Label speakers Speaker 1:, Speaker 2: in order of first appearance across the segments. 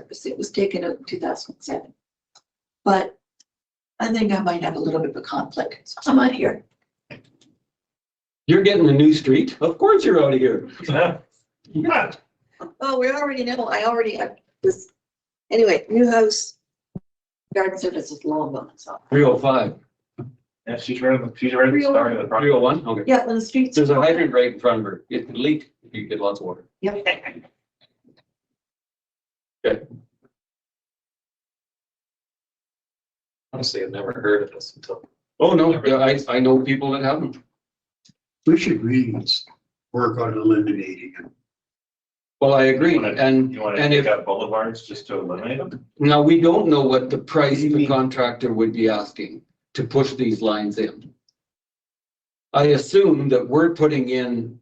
Speaker 1: purpose. It was taken up in two thousand and seven. But I think I might have a little bit of a conflict, so I'm out here.
Speaker 2: You're getting a new street. Of course you're out of here.
Speaker 1: Oh, we already know, I already have this, anyway, new house. Garden services long gone, so.
Speaker 2: Three oh five.
Speaker 3: Yeah, she's ready, she's ready to
Speaker 1: Real.
Speaker 3: start the
Speaker 2: Three
Speaker 3: project.
Speaker 2: oh one? Okay.
Speaker 1: Yeah, when the streets.
Speaker 2: There's a hydrant right in front of her. It could leak if you get lots of water.
Speaker 1: Yep.
Speaker 4: Honestly, I've never heard of this until.
Speaker 2: Oh, no. Yeah, I, I know people that have them.
Speaker 5: We should really work on eliminating it.
Speaker 2: Well, I agree.
Speaker 3: You wanna-
Speaker 2: And,
Speaker 3: You want to
Speaker 2: and if,
Speaker 3: take out boulevards just to eliminate them?
Speaker 2: now we don't know what the price
Speaker 3: What do you
Speaker 2: the
Speaker 3: mean?
Speaker 2: contractor would be asking to push these lines in. I assume that we're putting in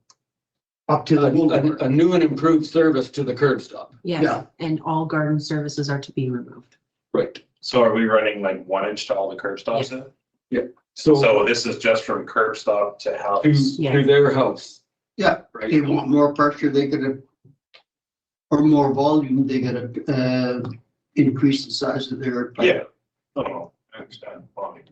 Speaker 5: Up to
Speaker 2: a,
Speaker 5: the
Speaker 2: a
Speaker 5: boulevard.
Speaker 2: a new and improved service to the curb stop.
Speaker 5: Yeah.
Speaker 6: Yes, and all garden services are to be removed.
Speaker 2: Right.
Speaker 3: So are we running like one inch to all the curb stops then?
Speaker 2: So
Speaker 3: So this is just from curb stop to
Speaker 2: to,
Speaker 3: house.
Speaker 6: Yeah.
Speaker 2: to their house.
Speaker 5: Yeah,
Speaker 2: Right.
Speaker 5: They want more pressure, they gotta, or more volume, they gotta, uh, increase the size of their.
Speaker 3: Yeah. Oh, I understand. Fine.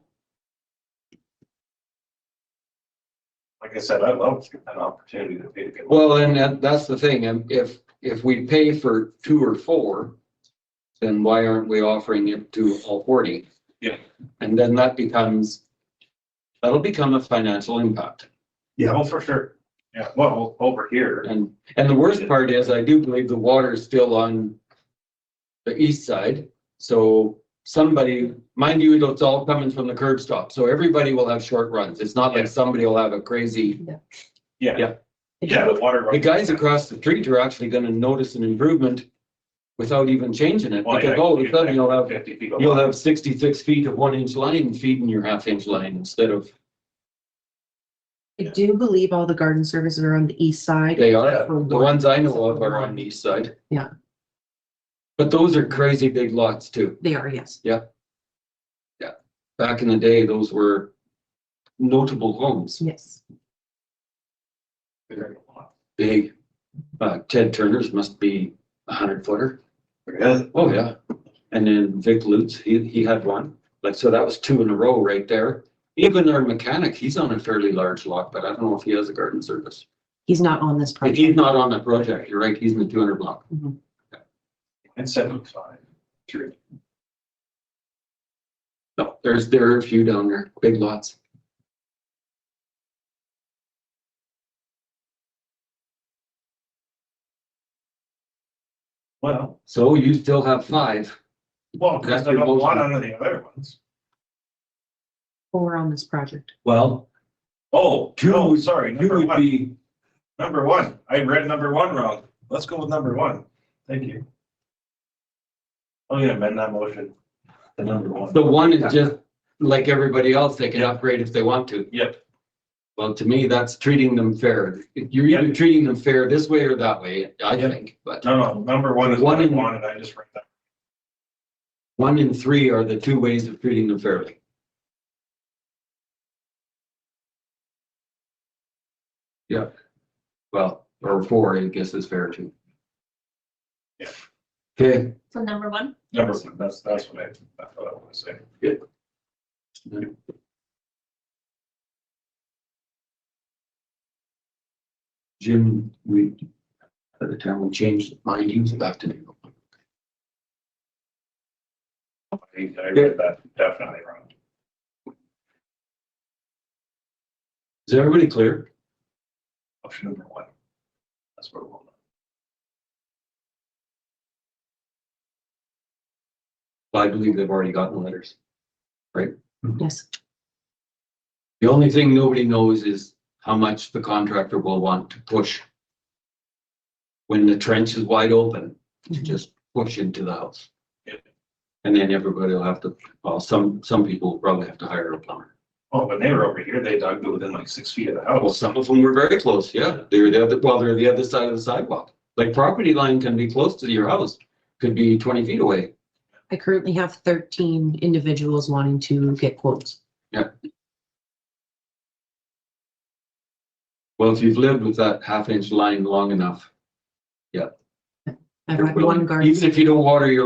Speaker 3: Like I said, I love an opportunity to be.
Speaker 2: Well, and that, that's the thing, and if, if we pay for two or four, then why aren't we offering it to all forty?
Speaker 3: Yeah.
Speaker 2: And then that becomes, that'll become a financial impact.
Speaker 3: Oh, for sure. Yeah, well, over here.
Speaker 2: And, and the worst part is, I do believe the water's still on the east side, so somebody, mind you, it's all coming from the curb stop, so everybody will have short runs. It's not
Speaker 3: Yeah.
Speaker 2: like somebody will have a crazy,
Speaker 3: Yeah.
Speaker 2: Yeah.
Speaker 3: Yeah, the water.
Speaker 2: the guys across the street are actually gonna notice an improvement without even changing it,
Speaker 3: Well, Oh, yeah,
Speaker 2: because all of a sudden you'll have
Speaker 3: Fifty feet. of
Speaker 2: You'll
Speaker 3: water.
Speaker 2: have sixty-six feet of one-inch line feeding your half-inch line instead of,
Speaker 6: I do believe all the garden services are on the east side.
Speaker 2: they are,
Speaker 6: For
Speaker 2: the
Speaker 6: one.
Speaker 2: ones I know of are on the east side.
Speaker 6: Yeah.
Speaker 2: But those are crazy big lots too.
Speaker 6: They are, yes.
Speaker 2: Back in the day, those were notable homes.
Speaker 6: Yes.
Speaker 2: Big, uh, Ted Turner's must be a hundred footer.
Speaker 3: Really?
Speaker 2: Oh, yeah. And then Vic Lutz, he, he had one. Like, so that was two in a row right there. Even our mechanic, he's on a fairly large lot, but I don't know if he has a garden service.
Speaker 6: He's not on this
Speaker 2: But
Speaker 6: project.
Speaker 2: he's not on the project, you're right, he's in the two hundred block.
Speaker 3: And seventy-five, three.
Speaker 2: No, there's, there are a few down there, big lots.
Speaker 3: Well,
Speaker 2: So you still have five.
Speaker 3: well,
Speaker 2: That's
Speaker 3: because I
Speaker 2: your
Speaker 3: got one
Speaker 2: motion.
Speaker 3: under the other ones.
Speaker 6: Four on this project.
Speaker 2: Well,
Speaker 3: Oh, no, sorry,
Speaker 2: you
Speaker 3: number
Speaker 2: would
Speaker 3: one,
Speaker 2: be,
Speaker 3: number one. I read number one wrong. Let's go with number one. Thank you. I'm gonna amend that motion. The number one.
Speaker 2: the one is just like everybody else, they can upgrade if they want to.
Speaker 3: Yep.
Speaker 2: Well, to me, that's treating them fair. You're either treating them fair this way or that way, I
Speaker 3: Yep.
Speaker 2: think, but
Speaker 3: No, no, number one is
Speaker 2: One
Speaker 3: what I
Speaker 2: in-
Speaker 3: wanted. I just read that.
Speaker 2: one and three are the two ways of treating them fairly. Yeah. Well, or four, I guess is fair too.
Speaker 3: Yeah.
Speaker 2: Okay.
Speaker 1: So number one?
Speaker 3: Number one, that's, that's what I, that's what I want to say.
Speaker 2: Jim, we, at the time we changed mind, he was back to New York.
Speaker 3: I- I read that definitely wrong.
Speaker 2: Is everybody clear?
Speaker 3: Option number one. That's what we'll.
Speaker 2: Well, I believe they've already gotten letters.
Speaker 6: Yes.
Speaker 2: The only thing nobody knows is how much the contractor will want to push. When the trench is wide open, to just push into the house.
Speaker 3: Yep.
Speaker 2: And then everybody will have to, well, some, some people will probably have to hire a plumber.
Speaker 3: Oh, when they were over here, they dug within like six feet of the
Speaker 2: Well,
Speaker 3: house.
Speaker 2: some of them were very close, yeah. They were the other, well, they're the other side of the sidewalk. Like property line can be close to your house, could be twenty feet away.
Speaker 6: I currently have thirteen individuals wanting to get quotes.
Speaker 2: Well, if you've lived with that half inch line long enough,
Speaker 6: I've had one garden.
Speaker 2: even if you don't water your